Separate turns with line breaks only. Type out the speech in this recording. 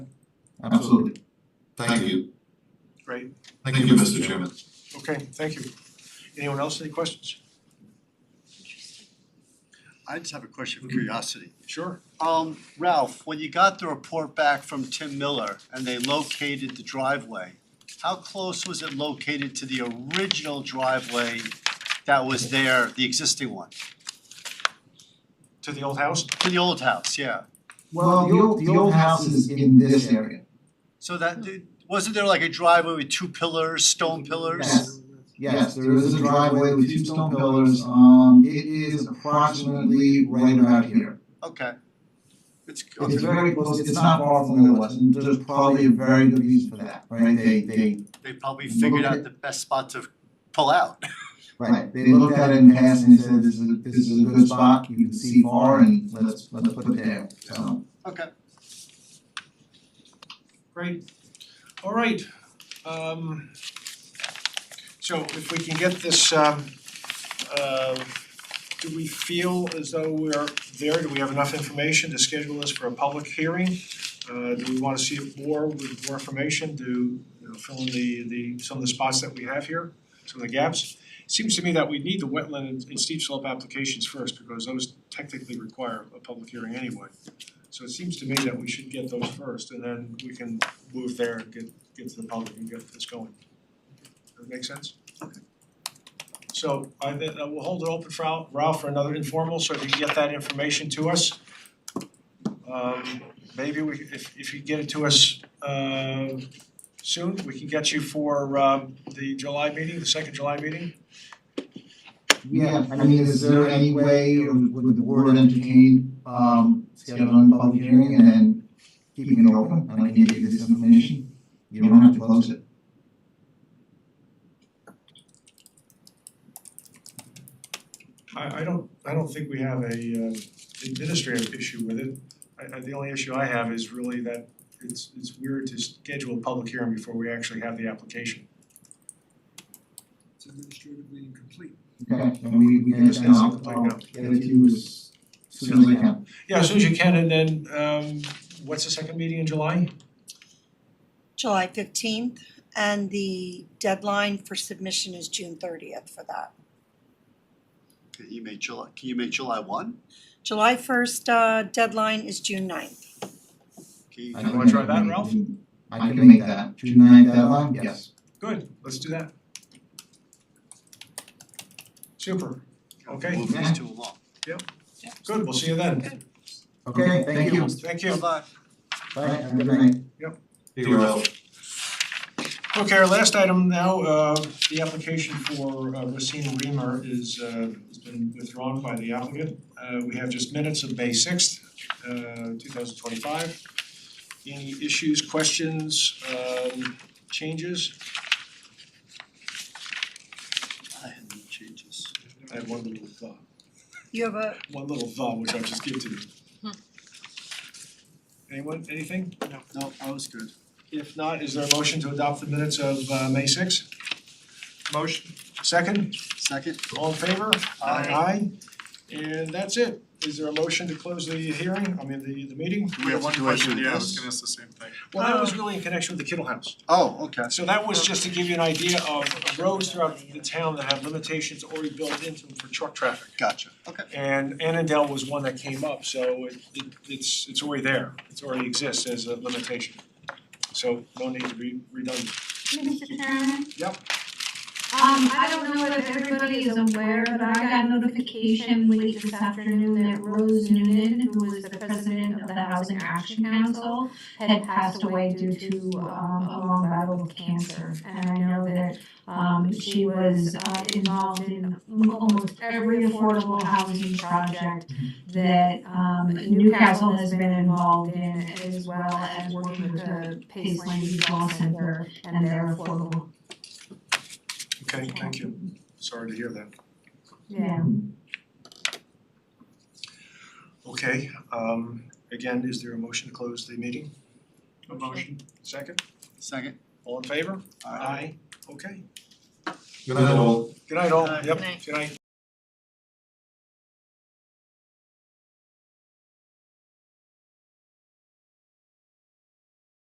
Absolutely.
Thank you.
Great.
Thank you, Mr. Chairman.
Okay, thank you. Anyone else, any questions?
I just have a question of curiosity.
Sure.
Um, Ralph, when you got the report back from Tim Miller and they located the driveway, how close was it located to the original driveway that was there, the existing one?
To the old house?
To the old house, yeah.
Well, the old, the old house is in this area.
So that, wasn't there like a driveway with two pillars, stone pillars?
Yes. Yes, there is a driveway with two stone pillars, um, it is approximately right about here.
Okay. It's,
It's
okay,
very close, it's not far from where it was, and there's probably a very good reason for that, right? They, they,
they probably figured out the best spot to pull out.
right, they looked at it in passing and said, this is, a- this is a good spot, you can see far, and let's, let's put it there, so.
Okay.
Great. All right. Um so if we can get this um uh do we feel as though we're there? Do we have enough information to schedule this for a public hearing? Uh do we wanna see it more with more information to you know fill in the the some of the spots that we have here, some of the gaps? Seems to me that we need the wetland and- and steep slope applications first because those technically require a public hearing anyway. So it seems to me that we should get those first and then we can move there and get get to the public and get this going. Does that make sense? So I then uh, we'll hold it open for Al- Ralph for another informal, so if you can get that information to us. Um maybe we if if you get it to us uh soon, we can get you for um the July meeting, the second July meeting.
Yeah, I mean, is there any way, or would the board entertain, um, scheduling a public hearing and then keeping it open, and I can give you this information? You don't have to close it.
I I don't, I don't think we have a uh administrative issue with it. I I the only issue I have is really that it's it's weird to schedule a public hearing before we actually have the application.
It's administratively incomplete.
Okay, and we, we can,
Just ask
I'll,
them to
I'll
clean
get it to you as soon as I can.
Yeah, as soon as you can, and then um what's the second meeting in July?
July fifteenth, and the deadline for submission is June thirtieth for that.
Can you make July, can you make July one?
July first, uh, deadline is June 9th.
Can you?
I
You
can
wanna try
make-
that, Ralph?
I can make that, June ninth deadline, yes.
Good, let's do that. Super, okay,
Move these two along.
good, we'll see you then.
Okay, thank you,
Thank you.
Bye-bye.
bye, have a good night.
Thank you, Ralph.
Okay, our last item now, uh the application for uh, Racine Reamer is uh has been withdrawn by the applicant. Uh we have just minutes of May sixth, uh two thousand twenty five. Any issues, questions, um changes?
I had no changes.
I have one little thought.
You have a,
one little thought, which I'll just give to you. Anyone, anything?
No, I was good.
If not, is there a motion to adopt the minutes of uh May sixth? Motion. Second,
Second?
all in favor?
Aye.
Aye. And that's it. Is there a motion to close the hearing, I mean, the the meeting?
We have one question, yeah, I was
gonna ask the same thing.
Well, that was really in connection with the Kittle House.
Oh, okay.
So that was just to give you an idea of roads throughout the town that have limitations already built into them for truck traffic.
Gotcha. Okay.
And Annandale was one that came up, so it it it's it's already there, it's already exists as a limitation. So no need to be redundant.
Mr. Chairman?
Yep.
Um, I don't know if everybody is aware, but I got notification late this afternoon that Rose Noonan, who was the president of the Housing Action Council, had passed away due to, um, a long battle with cancer. And I know that, um, she was, uh, involved in almost every affordable housing project that, um, Newcastle has been involved in, as well as working with the Pace Land Use Law Center and their affordable,
Okay, thank you. Sorry to hear that.
yeah.
Okay, um again, is there a motion to close the meeting? A motion. Second,
Second?
all in favor?
Aye.
Okay.
Good night, all.
Good night all,
Good night.
yep,
Good night.
good night.